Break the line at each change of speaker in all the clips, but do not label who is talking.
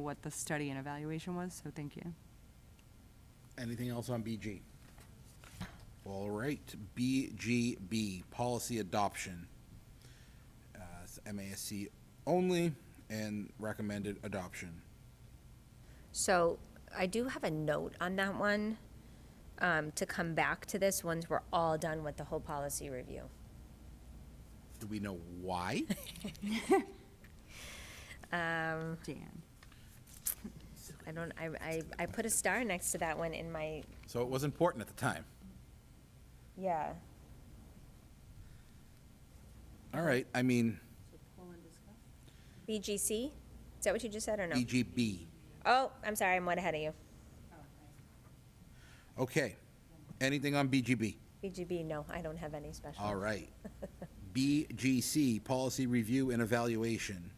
what the study and evaluation was, so thank you.
Anything else on BG? All right, BGB, policy adoption. Uh, it's MASC only and recommended adoption.
So I do have a note on that one, um, to come back to this once we're all done with the whole policy review.
Do we know why?
Dan.
I don't, I, I, I put a star next to that one in my,
So it was important at the time.
yeah.
All right, I mean,
BGC? Is that what you just said or no?
BGB.
Oh, I'm sorry, I'm one ahead of you.
Okay. Anything on BGB?
BGB, no, I don't have any special.
All right. BGC, policy review and evaluation.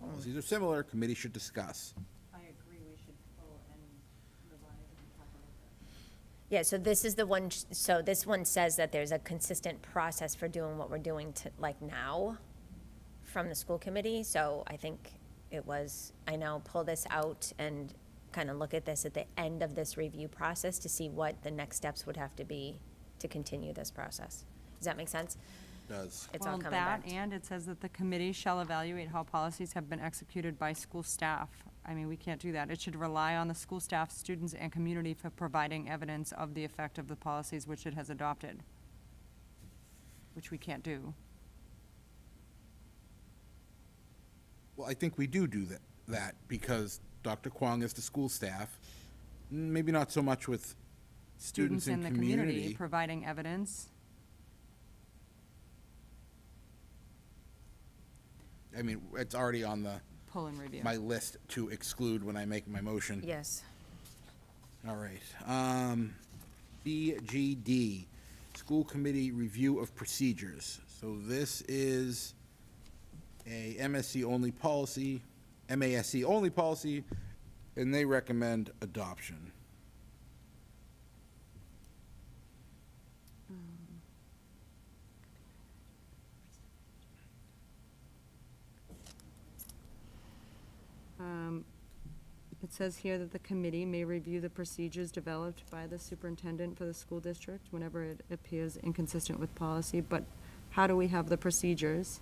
Policies are similar, committee should discuss.
I agree, we should pull and revise and talk about that.
Yeah, so this is the one, so this one says that there's a consistent process for doing what we're doing to, like now from the school committee, so I think it was, I now pull this out and kind of look at this at the end of this review process to see what the next steps would have to be to continue this process. Does that make sense?
Does.
It's all
Well,
coming back.
That, and it says that the committee shall evaluate how policies have been executed by school staff. I mean, we can't do that. It should rely on the school staff, students, and community for providing evidence of the effect of the policies which it has adopted, which we can't do.
Well, I think we do do that, that because Dr. Kwong is the school staff, Mm, maybe not so much with students and
in the community
community.
providing evidence.
I mean, it's already on the,
Pull and review.
my list to exclude when I make my motion.
Yes.
All right. Um, BGD, School Committee Review of Procedures. So this is a MSC only policy, MASC only policy, and they recommend adoption.
Um, It says here that the committee may review the procedures developed by the superintendent for the school district whenever it appears inconsistent with policy, but how do we have the procedures?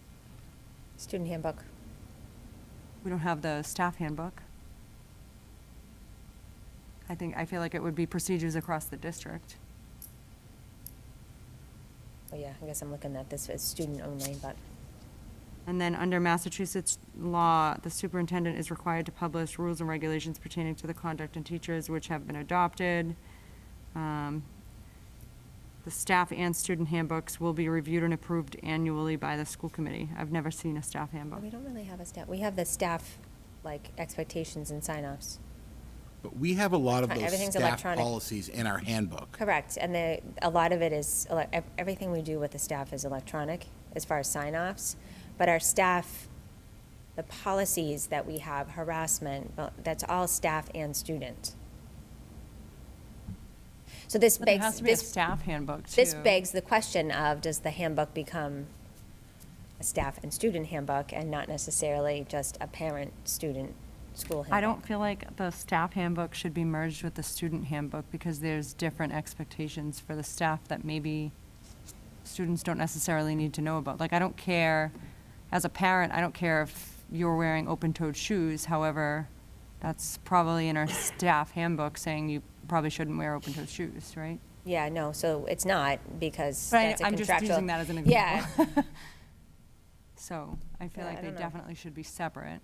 Student handbook.
We don't have the staff handbook. I think, I feel like it would be procedures across the district.
Oh, yeah, I guess I'm looking at this as student only, but,
And then under Massachusetts law, the superintendent is required to publish rules and regulations pertaining to the conduct of teachers which have been adopted. Um, The staff and student handbooks will be reviewed and approved annually by the school committee. I've never seen a staff handbook.
we don't really have a staff, we have the staff, like, expectations and sign-offs.
But we have a lot of
Right,
those
everything's
staff
electronic.
policies in our handbook.
Correct, and the, a lot of it is, ele- ev- everything we do with the staff is electronic as far as sign-offs. But our staff, the policies that we have, harassment, well, that's all staff and student. So this
But There has
begs,
to be a
this,
staff handbook, too.
this begs the question of, does the handbook become a staff and student handbook and not necessarily just a parent-student school handbook?
I don't feel like the staff handbook should be merged with the student handbook because there's different expectations for the staff that maybe students don't necessarily need to know about. Like, I don't care, as a parent, I don't care if you're wearing open-toed shoes. However, that's probably in our staff handbook saying you probably shouldn't wear open-toed shoes, right?
Yeah, no, so it's not, because
But I-
that's a contractual.
I'm just using that as an
Yeah,
example. So I feel
Yeah,
like
I
they
don't know.
definitely should be separate.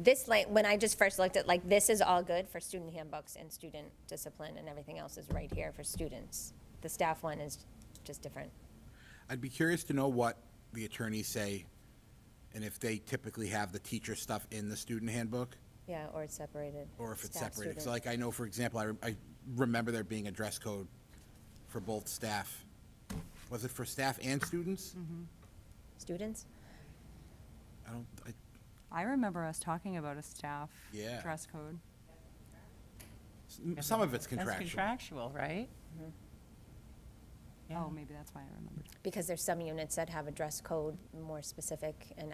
This, like, when I just first looked at, like, this is all good for student handbooks and student discipline, and everything else is right here for students. The staff one is just different.
I'd be curious to know what the attorneys say and if they typically have the teacher stuff in the student handbook.
Yeah, or it's separated.
Or if it's
staff,
separated, 'Cause
student.
like, I know, for example, I, rem- I remember there being a dress code for both staff. Was it for staff and students?
Mm-hmm. Students?
I don't, I,
I remember us talking about a staff
Yeah.
dress code.
s- m- some of it's
That's
contractual.
contractual, right? Yeah.
Oh, maybe that's why I remembered.
Because there's some units that have a dress code more specific and